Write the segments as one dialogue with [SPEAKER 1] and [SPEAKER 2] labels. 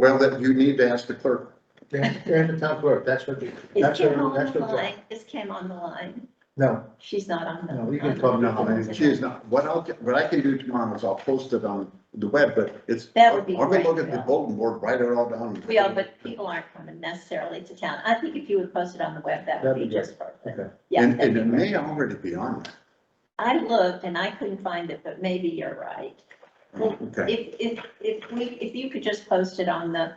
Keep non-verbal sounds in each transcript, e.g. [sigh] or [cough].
[SPEAKER 1] Well, that you need to ask the clerk.
[SPEAKER 2] Yeah, and the town clerk, that's what, the-
[SPEAKER 3] Is
[SPEAKER 2] that's what,
[SPEAKER 3] Kim on
[SPEAKER 2] that's
[SPEAKER 3] the
[SPEAKER 2] what,
[SPEAKER 3] line? Is Kim on the line?
[SPEAKER 2] no,
[SPEAKER 3] She's not on the.
[SPEAKER 2] No, you can
[SPEAKER 3] on the-
[SPEAKER 2] call
[SPEAKER 1] Oh, No, and she is not. What I'll, what I can do tomorrow is I'll post it on the web, but it's.
[SPEAKER 3] That would be
[SPEAKER 1] I'll go look
[SPEAKER 3] great,
[SPEAKER 1] at the
[SPEAKER 3] Bill.
[SPEAKER 1] bulletin board, write it all down.
[SPEAKER 3] Well, but people aren't coming necessarily to town. I think if you would post it on the web, that would
[SPEAKER 2] That'd
[SPEAKER 3] be
[SPEAKER 2] be great.
[SPEAKER 3] just perfect.
[SPEAKER 2] okay.
[SPEAKER 3] Yeah.
[SPEAKER 1] And,
[SPEAKER 3] that'd
[SPEAKER 1] and it
[SPEAKER 3] be great.
[SPEAKER 1] may already be on
[SPEAKER 3] I looked and I couldn't find it, but maybe you're right.
[SPEAKER 1] there. Okay,
[SPEAKER 3] If, if, if we, if you could just post it on the,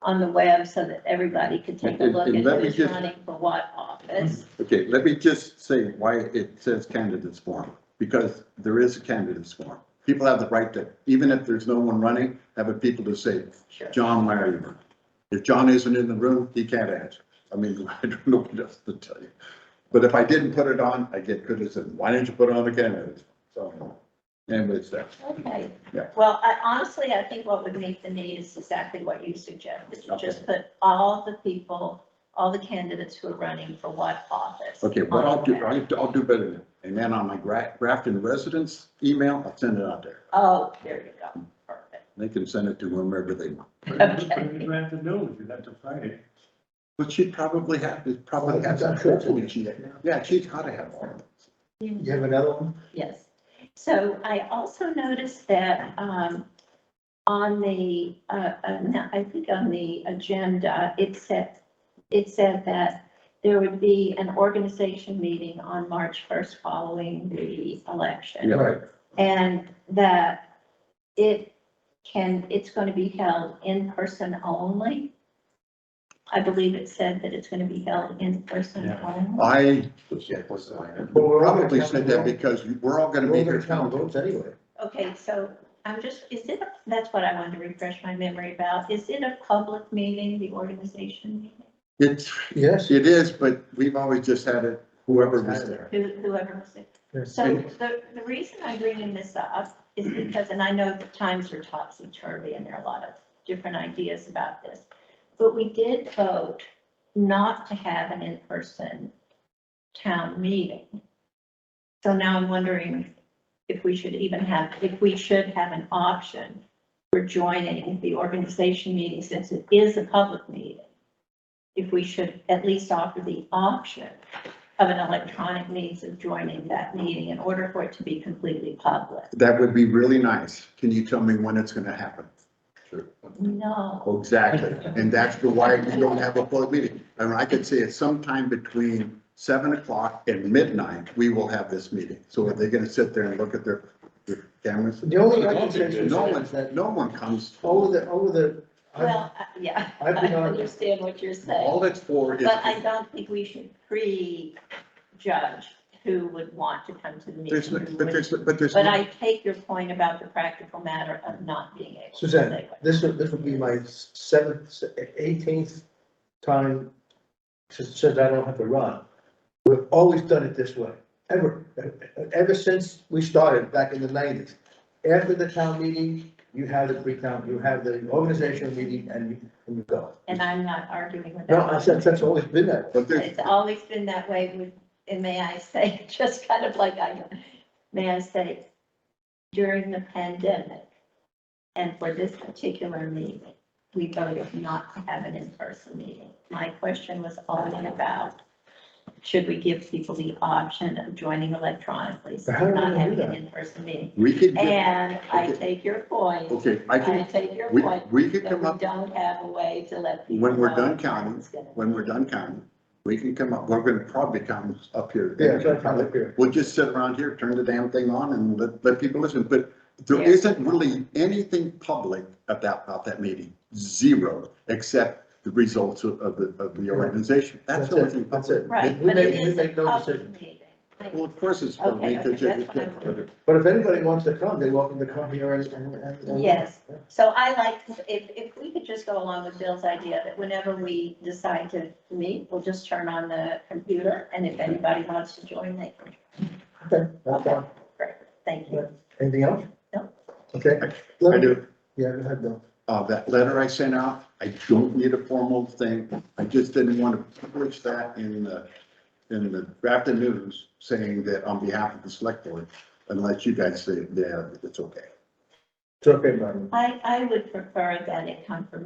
[SPEAKER 3] on the web so that everybody could take a
[SPEAKER 1] And-
[SPEAKER 3] look
[SPEAKER 1] and
[SPEAKER 3] at
[SPEAKER 1] let me
[SPEAKER 3] who's
[SPEAKER 1] just-
[SPEAKER 3] running for what office.
[SPEAKER 1] okay, let me just say why it says candidates form, because there is a candidates form. People have the right to, even if there's no one running, have a people to say,
[SPEAKER 3] Sure.
[SPEAKER 1] John, why are you running? If John isn't in the room, he can't answer. I mean, [laughs] I don't know what else to tell you. But if I didn't put it on, I get criticism. Why didn't you put it on the candidates? So, anyways, that's.
[SPEAKER 3] Okay.
[SPEAKER 1] Yeah.
[SPEAKER 3] Well, I honestly, I think what would meet the need is exactly what you suggest, is to
[SPEAKER 1] Okay.
[SPEAKER 3] just put all the people, all the candidates who are running for what office.
[SPEAKER 1] Okay, what
[SPEAKER 3] on
[SPEAKER 1] I'll do,
[SPEAKER 3] the web.
[SPEAKER 1] I'll I'll do better than, and then on my Gra- Grafton residents email, I'll send it out there.
[SPEAKER 3] Oh, there you go, perfect.
[SPEAKER 1] They can send it to whomever they want.
[SPEAKER 3] Okay.
[SPEAKER 4] You have to know, you have to find it.
[SPEAKER 1] But she probably has, it probably has.
[SPEAKER 2] I'm sure it's an issue.
[SPEAKER 1] Yeah, she's gotta have one.
[SPEAKER 2] You have another one?
[SPEAKER 3] Yes. So I also noticed that um, on the, uh, uh, no, I think on the agenda, it said, it said that there would be an organization meeting on March 1st following the election.
[SPEAKER 1] Yeah.
[SPEAKER 2] Right.
[SPEAKER 3] And that it can, it's going to be held in person only. I believe it said that it's going to be held in person
[SPEAKER 4] Yeah.
[SPEAKER 3] only.
[SPEAKER 1] I
[SPEAKER 2] Yeah. But we're all
[SPEAKER 1] probably
[SPEAKER 2] gonna
[SPEAKER 1] said
[SPEAKER 2] come
[SPEAKER 1] that
[SPEAKER 2] down-
[SPEAKER 1] because we're all gonna
[SPEAKER 2] We're
[SPEAKER 1] be
[SPEAKER 2] all
[SPEAKER 1] here.
[SPEAKER 2] gonna count votes anyway.
[SPEAKER 3] Okay, so I'm just, is it, that's what I wanted to refresh my memory about. Is it a public meeting, the organization meeting?
[SPEAKER 1] It's,
[SPEAKER 2] Yes.
[SPEAKER 1] it is, but we've always just had it, whoever was there.
[SPEAKER 3] Who- Whoever was it?
[SPEAKER 2] Yes.
[SPEAKER 3] So the, the reason I'm bringing this up is because, and I know the times are topsy-turvy and there are a lot of different ideas about this. But we did vote not to have an in-person town meeting. So now I'm wondering if we should even have, if we should have an option for joining the organization meeting since it is a public meeting. If we should at least offer the option of an electronic means of joining that meeting in order for it to be completely public.
[SPEAKER 1] That would be really nice. Can you tell me when it's gonna happen? Oh,
[SPEAKER 3] No,
[SPEAKER 1] Exactly, and that's the why we don't have a public meeting. And I could say it's sometime between seven o'clock and midnight, we will have this meeting. So are they gonna sit there and look at their their cameras?
[SPEAKER 2] The only other concern
[SPEAKER 1] No
[SPEAKER 2] is
[SPEAKER 1] one,
[SPEAKER 2] that
[SPEAKER 1] no one comes.
[SPEAKER 2] over the, over the, I-
[SPEAKER 3] well, I- yeah, I
[SPEAKER 2] I've been on-
[SPEAKER 3] understand what you're saying,
[SPEAKER 1] All it's for is,
[SPEAKER 3] but I don't think we should prejudge who would want to come to the meeting.
[SPEAKER 1] there's, no-
[SPEAKER 3] who
[SPEAKER 1] but there's,
[SPEAKER 3] wouldn't.
[SPEAKER 1] but there's.
[SPEAKER 3] But
[SPEAKER 1] no-
[SPEAKER 3] I take your point about the practical matter of not being able to.
[SPEAKER 2] Suzanne,
[SPEAKER 3] say what-
[SPEAKER 2] this would, this would be my seventh, eighteenth time since, since I don't have to run. We've always done it this way, ever, ever since we started back in the nineties. After the town meeting, you have the pre-town, you have the organizational meeting and you, and you go.
[SPEAKER 3] And I'm not arguing with that.
[SPEAKER 2] No, I said, that's always been that. way.
[SPEAKER 1] But there's,
[SPEAKER 3] It's always been that way with, and may I say, [laughs] just kind of like I, may I say, during the pandemic and for this particular meeting, we voted not to have an in-person meeting. My question was only about, should we give people the option of joining electronically, so
[SPEAKER 2] But how do we
[SPEAKER 3] not
[SPEAKER 2] do
[SPEAKER 3] having an
[SPEAKER 2] that?
[SPEAKER 3] in-person meeting?
[SPEAKER 1] we could, get-
[SPEAKER 3] And I take your point,
[SPEAKER 1] okay, I
[SPEAKER 3] I
[SPEAKER 1] can,
[SPEAKER 3] take your
[SPEAKER 1] we,
[SPEAKER 3] point,
[SPEAKER 1] we could
[SPEAKER 3] that
[SPEAKER 1] come
[SPEAKER 3] we
[SPEAKER 1] up,
[SPEAKER 3] don't have a way to let people know.
[SPEAKER 1] When we're done counting,
[SPEAKER 3] it's gonna-
[SPEAKER 1] when we're done counting, we can come up, we're gonna probably come up here.
[SPEAKER 2] Yeah, it's like, I'm here.
[SPEAKER 1] We'll just sit around here, turn the damn thing on and let, let people listen, but there
[SPEAKER 3] Yeah.
[SPEAKER 1] isn't really anything public about, about that meeting. Zero, except the results of, of the, of the organization. That's the only
[SPEAKER 2] That's
[SPEAKER 1] thing.
[SPEAKER 2] it, that's it.
[SPEAKER 3] Right,
[SPEAKER 2] We
[SPEAKER 3] but it
[SPEAKER 2] make, we
[SPEAKER 3] is
[SPEAKER 2] make
[SPEAKER 3] a
[SPEAKER 2] no
[SPEAKER 3] public
[SPEAKER 2] decision.
[SPEAKER 3] meeting.
[SPEAKER 1] Well, of course it's public.
[SPEAKER 3] Okay, okay,
[SPEAKER 1] because it-
[SPEAKER 3] that's what I'm-
[SPEAKER 2] But if anybody wants to come, they're welcome to come here and, and- and.
[SPEAKER 3] Yes, so I like, to- if, if we could just go along with Bill's idea that whenever we decide to meet, we'll just turn on the computer, and if anybody wants to join, they can.
[SPEAKER 2] Okay, that's fine.
[SPEAKER 3] Great, thank you.
[SPEAKER 2] Anything else?
[SPEAKER 3] No.
[SPEAKER 2] Okay.
[SPEAKER 1] I do.
[SPEAKER 2] Yeah, go ahead, Bill.
[SPEAKER 1] uh, that letter I sent out, I don't need a formal thing. I just didn't want to publish that in the, in the Grafton News saying that on behalf of the select board, unless you guys say, yeah, it's okay.
[SPEAKER 2] It's okay, Brian.
[SPEAKER 3] I, I would prefer that it come from